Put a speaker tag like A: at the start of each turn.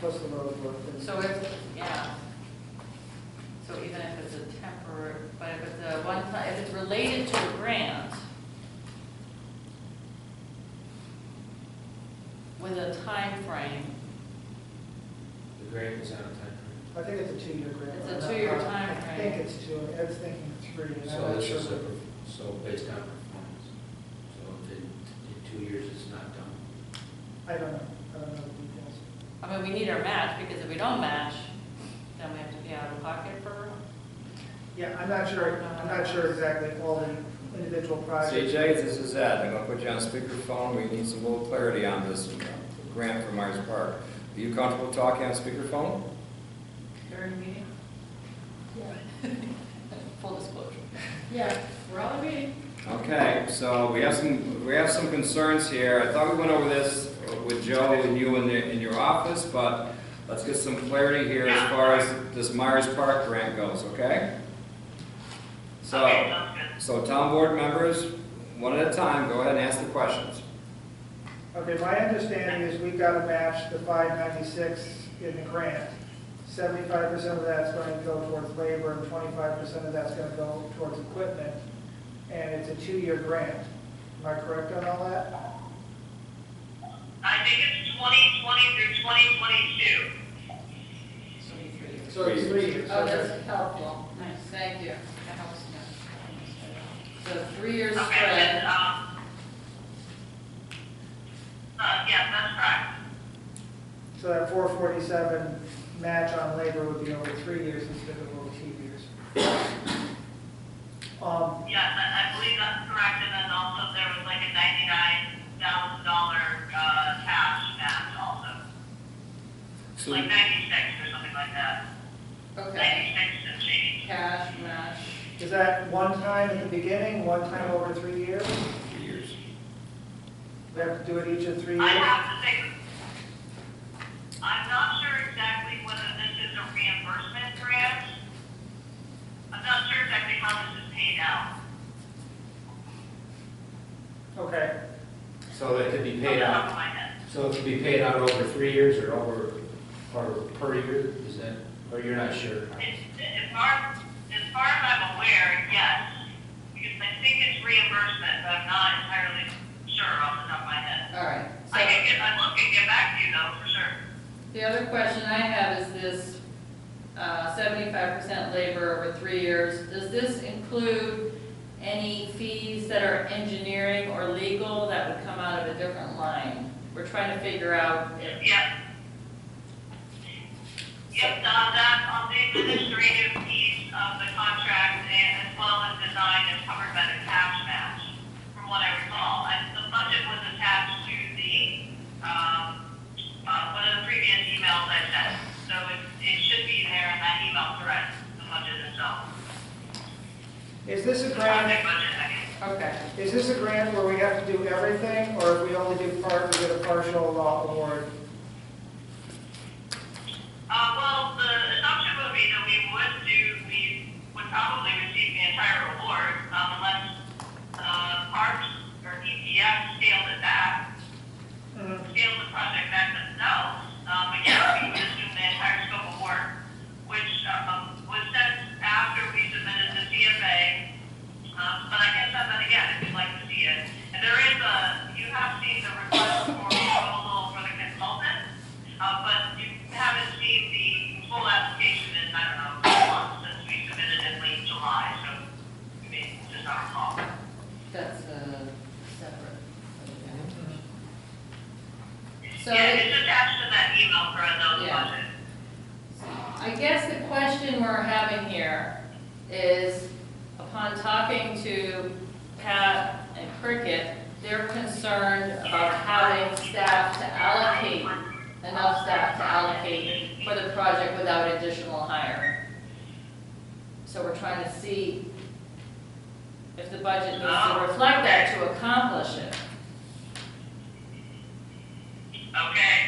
A: plus the road work. and-
B: So if, yeah. So even if it's a temporary, but if it's a one time, if it's related to a grant with a time frame,
C: The grant is on time
A: I think it's a two-year grant.
B: It's a two-year time
A: I
B: frame.
A: think it's two, I was thinking three,
C: frame.
A: and
C: So
A: I'm not
C: this
A: sure.
C: is a, perf- so based on performance. So if in, in two years it's not done,
A: I don't know, I don't know the details.
B: I mean, we need our match, because if we don't match, then we have to be out of pocket for,
A: Yeah, I'm not sure, I'm not sure exactly all the individual projects.
D: CJ, this is Ed. I'm going to put you on speakerphone. We need some little clarity on this grant for Myers Park. Are you comfortable talking on speakerphone?
B: during meeting,
E: Yeah,
B: full disclosure.
E: yeah, we're all agreeing.
D: Okay, so we have some, we have some concerns here. I thought we went over this with Joe and you in, the- in your office, but let's get some clarity here as far as this Myers Park grant goes, okay? So, so town board members, one at a time, go ahead and ask the questions.
A: Okay, my understanding is we've got to match the five ninety-six in the grant. Seventy-five percent of that's going to go towards labor and twenty-five percent of that's going to go towards equipment. And it's a two-year grant. Am I correct on all that?
F: I think it's 2020 through 2022.
B: Twenty-three.
A: So it's three years.
E: Oh, that's helpful.
B: Nice, thank you. That helps, yeah. So three years
F: Okay, then,
B: spread,
F: um, uh, yeah, that's correct.
A: So that four forty-seven match on labor would be over three years instead of over two years. Um,
F: Yes, I, I believe that's correct, and then also there was like a $99,000, uh, cash match also.
D: So-
F: Like 96 or something like that.
B: okay,
F: 96 and change.
B: cash match.
A: is that one time at the beginning, one time over three years?
D: Years.
A: We have to do it each of three
F: I
A: years?
F: have to think, I'm not sure exactly whether this is a reimbursement grant. I'm not sure exactly how this is paid out.
A: Okay.
C: so it could be paid
F: Off the top
C: out,
F: of my head.
C: so it could be paid out over three years or over, or per year, is that, or you're not sure?
F: As as far, as far as I'm aware, yes, because I think it's reimbursement, but I'm not entirely sure off the top of my head.
B: All right,
F: I
B: so
F: can get, I look and get back to you though, for sure.
B: the other question I have is this uh, seventy-five percent labor over three years. Does this include any fees that are engineering or legal that would come out of a different line? We're trying to figure out if,
F: Yep. Yep, uh, that's on the administrative piece of the contract and as well as design is covered by the cash match, from what I recall. And the budget was attached to the, um, uh, one of the previous emails I sent. So it, it should be there in that email thread, the budget itself.
A: Is this a
F: The
A: grant,
F: project budget, I guess.
B: okay.
A: is this a grant where we have to do everything, or if we only do part, we get a partial law award?
F: Uh, well, the assumption would be that we would do, we would probably receive the entire award, um, unless, uh, Parks or EPS scaled it back,
A: Mhm.
F: scaled the project back themselves. Um, but yeah, we would assume the entire scope of work, which, um, was sent after we submitted the CFA. Um, but I can send that again if you'd like to see it. And there is a, you have seen the request for proposal for the consultant. Uh, but you haven't seen the full application in, I don't know, a couple months since we submitted in late July, so, I mean, just our call.
B: That's uh, separate. So-
F: Yeah, it's attached to that email for those
B: Yeah.
F: budget.
B: I guess the question we're having here is, upon talking to Pat and Cricket, they're concerned about having staff to allocate, enough staff to allocate for the project without additional hire. So we're trying to see if the budget needs to reflect that to accomplish it.
F: Okay,